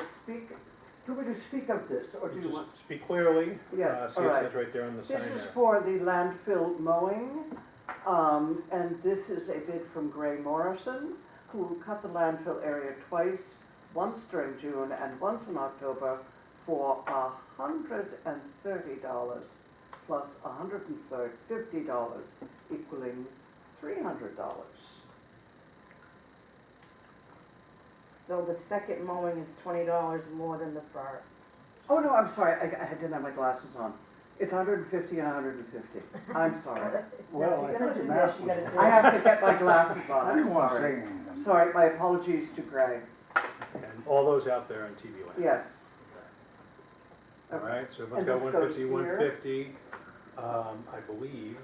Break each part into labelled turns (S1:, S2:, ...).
S1: speak, do you want me to speak of this, or do you want?
S2: Just speak clearly.
S1: Yes,
S2: Uh, See,
S1: all
S2: it
S1: right.
S2: says right there on the sign
S1: This is
S2: there.
S1: for the landfill mowing, um, and this is a bid from Gray Morrison, who will cut the landfill area twice, once during June and once in October, for hundred and thirty dollars plus a hundred and thirty, fifty dollars, equaling three hundred dollars.
S3: So the second mowing is twenty dollars more than the first.
S1: Oh, no, I'm sorry, I, I didn't have my glasses on. It's hundred and fifty and hundred and fifty. I'm sorry.
S4: Well, I think the math was.
S1: I have to get my glasses on,
S4: I
S1: I'm
S4: didn't want to say
S1: sorry.
S4: anything.
S1: Sorry, my apologies to Gray.
S2: And all those out there on TV land.
S1: Yes.
S2: All right, so
S1: And
S2: everyone's got
S1: this
S2: one
S1: goes
S2: fifty, one fifty, um, I believe.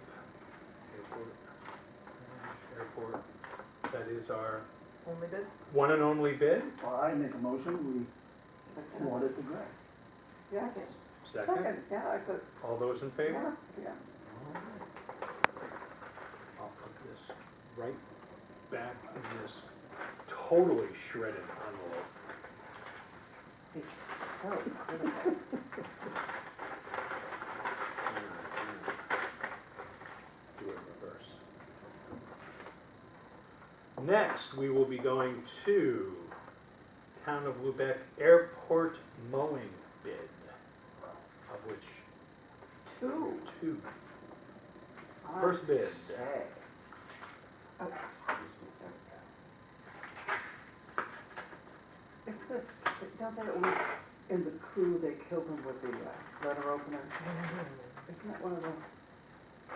S2: Airport, Airport, that is our
S5: Only bid?
S2: one and only bid.
S4: Well, I make a motion, we award it to Greg.
S1: Yes.
S2: Second,
S1: Second, yeah, I could,
S2: all those in favor?
S1: yeah, yeah.
S2: I'll put this right back in this totally shredded envelope.
S1: He's so critical.
S2: Do it reverse. Next, we will be going to Town of Lubec Airport mowing bid, of which
S1: Two.
S2: two. First bid.
S1: Okay. Is this, don't they always, in the crew, they kill them with the uh, letter opener? Isn't that one of them?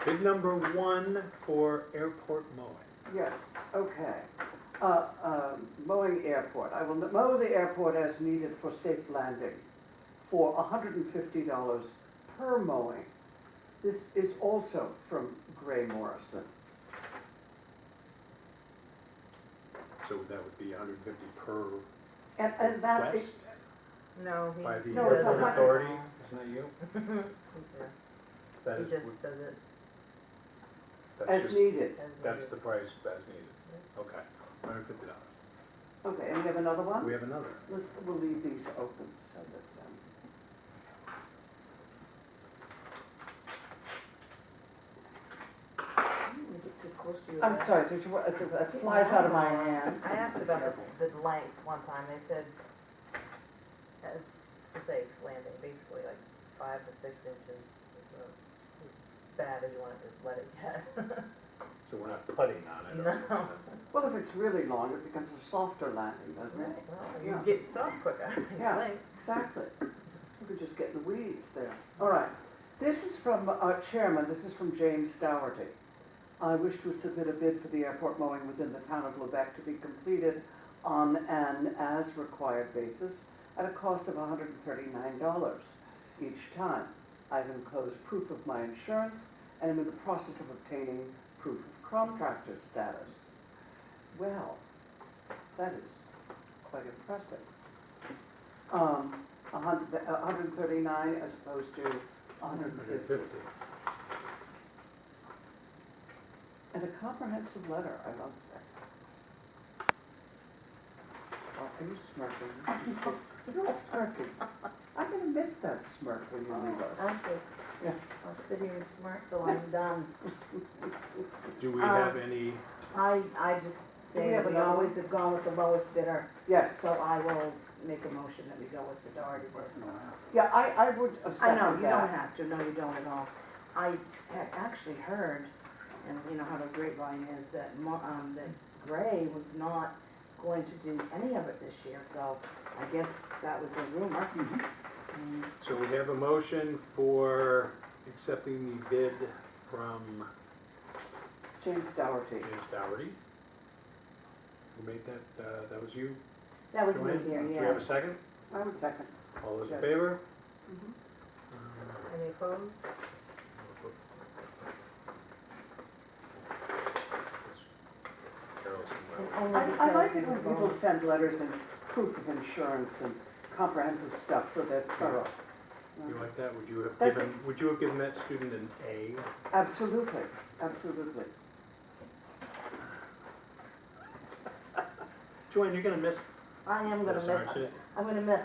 S2: Bid number one for airport mowing.
S1: Yes, okay. Uh, um, Mowing airport, I will mow the airport as needed for safe landing for hundred and fifty dollars per mowing. This is also from Gray Morrison.
S2: So that would be hundred and fifty per
S1: And, and that,
S2: request
S5: No, he.
S2: by the
S1: No, it's a
S2: airport
S1: hun-
S2: authority, isn't that you?
S5: He
S2: That is,
S5: just does it
S2: that's
S1: as
S2: just,
S1: needed.
S5: as
S2: that's
S5: needed.
S2: the price as needed. Okay, hundred and fifty dollars.
S1: Okay, and we have another one?
S2: We have another.
S1: Let's, we'll leave these open so that, um.
S5: You get too close to your
S1: I'm
S5: light.
S1: sorry, did you, uh, that flies out of my hand.
S5: I asked about the, the length one time, they said, as, for safe landing, basically like five to six inches is uh, as bad as you want to let it get.
S2: So we're not putting on it or
S5: No.
S2: something.
S1: Well, if it's really long, it becomes a softer landing, doesn't it?
S5: Well, You
S1: Yeah.
S5: get stuck quicker, you
S1: Yeah.
S5: think.
S1: Exactly. We could just get in the weeds there. All right. This is from our chairman, this is from James Dougherty. I wish to submit a bid for the airport mowing within the town of Lubec to be completed on an as-required basis at a cost of $139 each time. I've enclosed proof of my insurance and am in the process of obtaining proof of contractor status. Well, that is quite impressive um, a hun- a hundred and thirty-nine as opposed to a hundred and
S2: Hundred and
S1: fifty.
S2: fifty.
S1: And a comprehensive letter, I must say. Oh, Are you smirking? You're smirking. I'm gonna miss that smirk when you leave us.
S5: Actually,
S1: Yeah.
S5: I'll sit here and smirk till I'm done.
S2: Do we
S5: Um,
S2: have any,
S5: I, I just
S1: Do we
S5: say
S1: have
S5: that we
S1: another one?
S5: always have gone with the lowest bidder,
S1: Yes,
S5: so I will make a motion that we go with the Doherty bidder.
S1: yeah, I, I would uh,
S5: I know,
S1: second
S5: you don't
S1: that.
S5: have to, no, you don't at all. I had actually heard, and you know how the grapevine is, that Mo, um, that Gray was not going to do any of it this year, so I guess that was a rumor. And
S2: so we have a motion for accepting the bid from
S1: James Dougherty.
S2: James Dougherty. Who made that, uh, that was you?
S5: That was me
S2: Joanne?
S5: here,
S2: Do we have
S5: yeah.
S2: a second?
S1: I would second.
S2: All those in
S1: Yes.
S2: favor?
S1: Mhm.
S5: Any opposed?
S2: Carol's in my way.
S5: Only
S1: I, I like it
S5: because
S1: when
S5: you
S1: people
S5: voted.
S1: send letters and proof of insurance and comprehensive stuff, so they're thorough.
S2: You like that? Would you have
S1: That's-
S2: given, would you have given that student an A?
S1: Absolutely, absolutely.
S2: Joanne, you're gonna miss
S5: I am gonna
S2: this,
S5: miss,
S2: aren't you?
S5: I'm gonna miss